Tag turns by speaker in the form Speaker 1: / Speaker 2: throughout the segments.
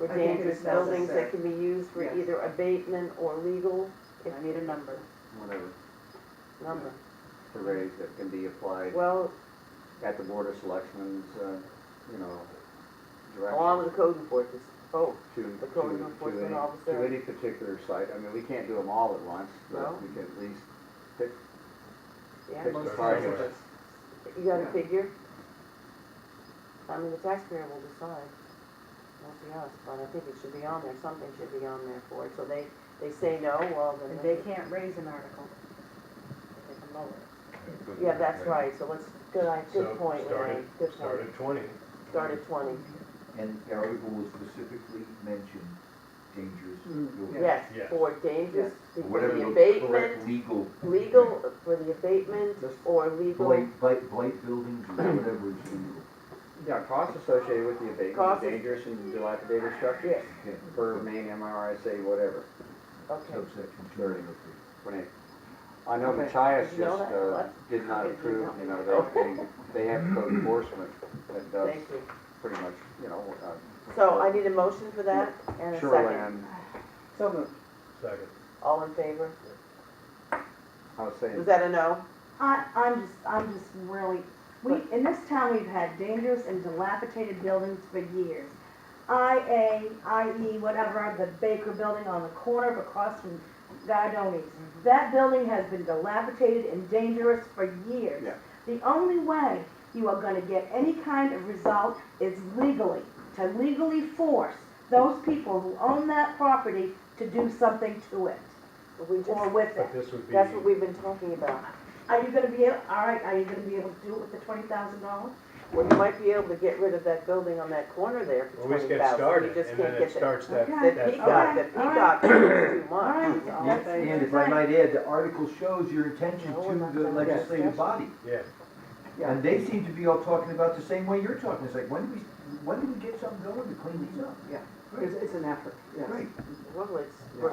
Speaker 1: or
Speaker 2: I think
Speaker 1: dangerous
Speaker 2: it's necessary.
Speaker 1: buildings that can be used for
Speaker 2: Yeah.
Speaker 1: either abatement or legal
Speaker 2: I need a number.
Speaker 3: whatever,
Speaker 1: number.
Speaker 3: to raise that can be applied
Speaker 1: Well,
Speaker 3: at the board of selectmen's, uh, you know, direction.
Speaker 1: along with the code enforcement, oh,
Speaker 3: To,
Speaker 1: the
Speaker 3: to,
Speaker 1: code
Speaker 3: to
Speaker 1: enforcement
Speaker 3: any,
Speaker 1: officer.
Speaker 3: to any particular site, I mean, we can't do them all at once,
Speaker 1: No.
Speaker 3: but we can at least pick,
Speaker 1: yeah,
Speaker 3: pick
Speaker 2: most
Speaker 3: the
Speaker 2: of
Speaker 3: target.
Speaker 2: us.
Speaker 1: you got a
Speaker 3: Yeah.
Speaker 1: figure? I mean, the taxpayer will decide, won't be us, but I think it should be on there, something should be on there for it, so they, they say no, well, then
Speaker 2: And
Speaker 1: they.
Speaker 2: they can't raise an article. They can lower it.
Speaker 4: Good
Speaker 1: Yeah,
Speaker 4: point,
Speaker 1: that's right, so let's, good, I,
Speaker 4: So,
Speaker 1: good point,
Speaker 4: start
Speaker 1: Larry,
Speaker 4: at-
Speaker 1: good
Speaker 4: Start
Speaker 1: point.
Speaker 4: at twenty.
Speaker 1: Start at twenty,
Speaker 5: And the article will specifically mention dangerous
Speaker 2: Mm,
Speaker 5: buildings.
Speaker 1: yes,
Speaker 4: Yes.
Speaker 1: for dangerous,
Speaker 5: Or
Speaker 1: for
Speaker 5: Whatever
Speaker 1: the
Speaker 5: the correct
Speaker 1: abatement,
Speaker 5: legal.
Speaker 1: legal, for the abatement
Speaker 3: Just
Speaker 1: or legal,
Speaker 5: Blight, blight, blight buildings or whatever is legal.
Speaker 3: Yeah, costs associated with the
Speaker 1: Costs
Speaker 3: abatement,
Speaker 1: is-
Speaker 3: dangerous and dilapidated structures,
Speaker 1: yes,
Speaker 5: Okay.
Speaker 3: per main MRSA, whatever,
Speaker 1: okay.
Speaker 5: Subsection two. Very
Speaker 3: when it, I know
Speaker 1: Okay.
Speaker 3: Matthias
Speaker 1: Did you know
Speaker 3: just,
Speaker 1: that?
Speaker 3: uh,
Speaker 1: What?
Speaker 3: did
Speaker 1: I
Speaker 3: not
Speaker 1: didn't
Speaker 3: approve,
Speaker 1: know.
Speaker 3: you know, they, they, they have code enforcement that does
Speaker 1: Thank you.
Speaker 3: pretty much, you know, uh,
Speaker 1: So I need a motion for that and a second.
Speaker 3: shoreland.
Speaker 4: Second.
Speaker 1: All in favor?
Speaker 3: I was saying,
Speaker 1: Was that a no?
Speaker 6: I, I'm just, I'm just really, we, in this town, we've had dangerous and dilapidated buildings for years. IA, IE, E, whatever, the Baker Building on the corner of across from Gardoni's.
Speaker 2: Mm-hmm.
Speaker 6: That building has been dilapidated and dangerous for years.
Speaker 3: Yeah.
Speaker 6: The only way you are gonna get any kind of result is legally, to legally force those people who own that property to do something to it,
Speaker 1: We just,
Speaker 6: or with it.
Speaker 4: But this would be,
Speaker 1: that's what we've been talking about.
Speaker 6: Are you gonna be, able? all right, are you gonna be able to do it with the twenty thousand dollars?
Speaker 1: Well, you might be able to get rid of that building on that corner there for
Speaker 4: well, we just
Speaker 1: twenty
Speaker 4: get
Speaker 1: thousand. You
Speaker 4: started
Speaker 1: just
Speaker 4: and then
Speaker 1: can't
Speaker 4: it
Speaker 1: get the,
Speaker 4: starts that,
Speaker 6: Okay.
Speaker 1: the
Speaker 4: that,
Speaker 1: peacock, the
Speaker 6: Okay, all
Speaker 1: peacock is too
Speaker 6: All
Speaker 1: much.
Speaker 6: right,
Speaker 5: And
Speaker 6: that's,
Speaker 5: and
Speaker 6: that's
Speaker 5: if I
Speaker 6: right.
Speaker 5: might add, the article shows your intention
Speaker 1: No, we're
Speaker 5: to
Speaker 1: not
Speaker 5: the
Speaker 1: done with that
Speaker 5: legislative
Speaker 1: discussion.
Speaker 5: body.
Speaker 4: yeah.
Speaker 5: And they seem to be all talking about the same way you're talking. It's like, when do we, when do we get something going to clean these up?
Speaker 7: Yeah.
Speaker 5: Right,
Speaker 7: It's, it's an effort, yes.
Speaker 5: right.
Speaker 1: Well, it's,
Speaker 3: Yeah.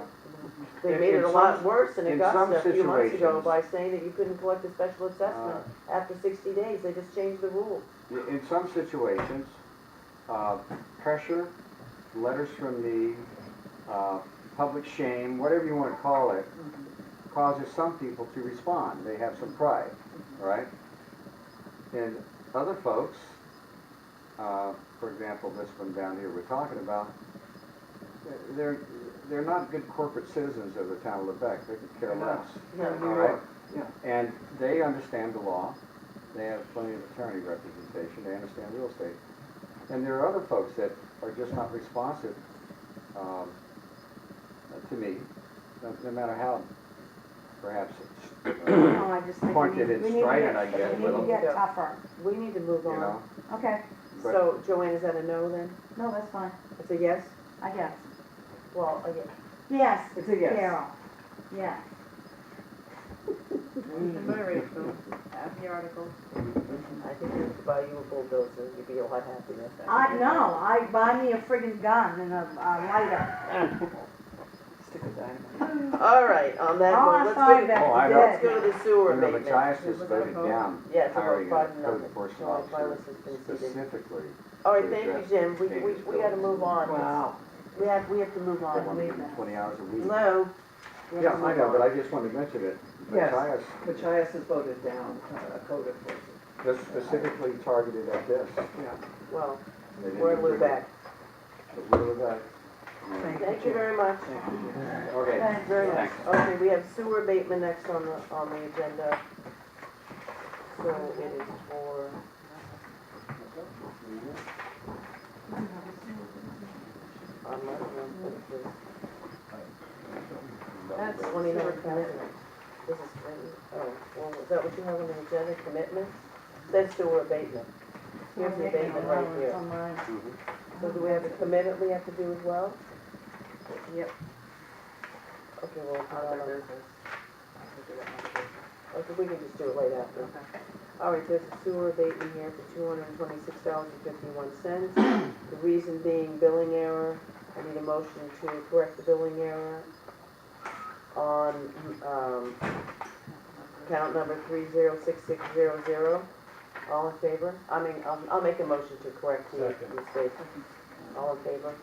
Speaker 1: they
Speaker 3: In-
Speaker 1: made it
Speaker 3: in
Speaker 1: a lot
Speaker 3: some-
Speaker 1: worse in
Speaker 3: in some
Speaker 1: Augusta a few months ago
Speaker 3: situations- Uh.
Speaker 1: by saying that you couldn't collect a special assessment after sixty days. They just changed the rule.
Speaker 3: in some situations, uh, pressure, letters from the, uh, public shame, whatever you wanna call it,
Speaker 7: Mm-hmm.
Speaker 3: causes some people to respond. They have some pride,
Speaker 7: Mm-hmm.
Speaker 3: all right? And other folks, uh, for example, this one down here we're talking about, they're, they're not good corporate citizens of the town of Lebec. They could care
Speaker 7: They're not.
Speaker 3: less.
Speaker 7: Yeah,
Speaker 3: All
Speaker 7: New
Speaker 3: right?
Speaker 7: York, yeah.
Speaker 3: And they understand the law, they have plenty of attorney representation, they understand real estate. And there are other folks that are just not responsive, um, to me, no, no matter how perhaps it's, uh,
Speaker 6: No, Oh, I just think we
Speaker 3: Pointed
Speaker 6: need,
Speaker 3: and
Speaker 6: we need to
Speaker 3: strident,
Speaker 6: get-
Speaker 3: I guess,
Speaker 6: We need
Speaker 3: but-
Speaker 6: to get tougher.
Speaker 1: We need to move
Speaker 3: you know,
Speaker 1: on.
Speaker 6: Okay,
Speaker 3: but-
Speaker 1: So Joanne, is that a no then?
Speaker 6: no, that's fine,
Speaker 1: It's a yes?
Speaker 6: I guess.
Speaker 1: Well, a yes.
Speaker 6: Yes,
Speaker 7: It's a yes.
Speaker 6: Carol, yes.
Speaker 3: Mm-hmm.
Speaker 4: And moderate them, have uh, the article.
Speaker 1: I think you could buy you a bulldozer, you'd be a lot happier.
Speaker 6: I, no, I buy me a friggin' gun and a, a lighter.
Speaker 7: Stick with dynamite.
Speaker 1: All right, on that
Speaker 6: All
Speaker 1: note,
Speaker 6: I
Speaker 1: let's
Speaker 6: thought
Speaker 1: go,
Speaker 6: about
Speaker 3: Oh, I
Speaker 6: the
Speaker 3: know.
Speaker 6: dead.
Speaker 1: let's go to the sewer
Speaker 3: You know,
Speaker 1: abatement.
Speaker 3: Matthias has
Speaker 2: Was that a
Speaker 3: voted
Speaker 2: vote?
Speaker 3: down
Speaker 1: Yeah, it's a vote,
Speaker 3: hiring a
Speaker 1: five to
Speaker 3: code
Speaker 1: nothing.
Speaker 3: enforcement
Speaker 1: Joe, my
Speaker 3: officer
Speaker 1: list has been seated.
Speaker 3: specifically.
Speaker 1: All right, thank you, Jim, we, we, we gotta move on.
Speaker 7: Wow.
Speaker 1: We have, we have to move
Speaker 3: They
Speaker 1: on.
Speaker 3: want to give
Speaker 1: We-
Speaker 3: them twenty hours a week.
Speaker 1: Hello? We have
Speaker 3: Yeah,
Speaker 1: to
Speaker 3: I
Speaker 1: move
Speaker 3: know,
Speaker 1: on.
Speaker 3: but I just wanted to mention it.
Speaker 7: Yes.
Speaker 3: Matthias
Speaker 7: Machias has voted down uh, code enforcement.
Speaker 3: That's specifically targeted at this.
Speaker 1: Well,
Speaker 3: They didn't
Speaker 1: we're
Speaker 3: even bring
Speaker 1: Lubec.
Speaker 3: it- But we're Lubec.
Speaker 7: Thank you.
Speaker 1: Thank you very much.
Speaker 7: Thank you.
Speaker 3: Okay.
Speaker 6: Okay.
Speaker 1: Very nice.
Speaker 3: Thanks.
Speaker 1: Okay, we have sewer abatement next on the, on the agenda. So it is for, on my,
Speaker 6: That's
Speaker 1: Twenty-nine commitments. This is, twenty- oh, well, is that what you have on the agenda, commitments? That's sewer abatement. Here's the abatement right here.
Speaker 3: Mhm.
Speaker 1: So do we have a commitment we have to do as well?
Speaker 2: Yep.
Speaker 1: Okay, well,
Speaker 2: Other
Speaker 1: uh,
Speaker 2: business. We'll do that under business.
Speaker 1: okay, we can just do it right after. All right, there's a sewer abatement here for two hundred and twenty-six dollars and fifty-one cents. The reason being billing error. I need a motion to correct the billing error on, um, account number three zero six six zero zero. All in favor? I mean, I'll, I'll make a motion to correct the
Speaker 4: Second.
Speaker 1: mistake. All in favor?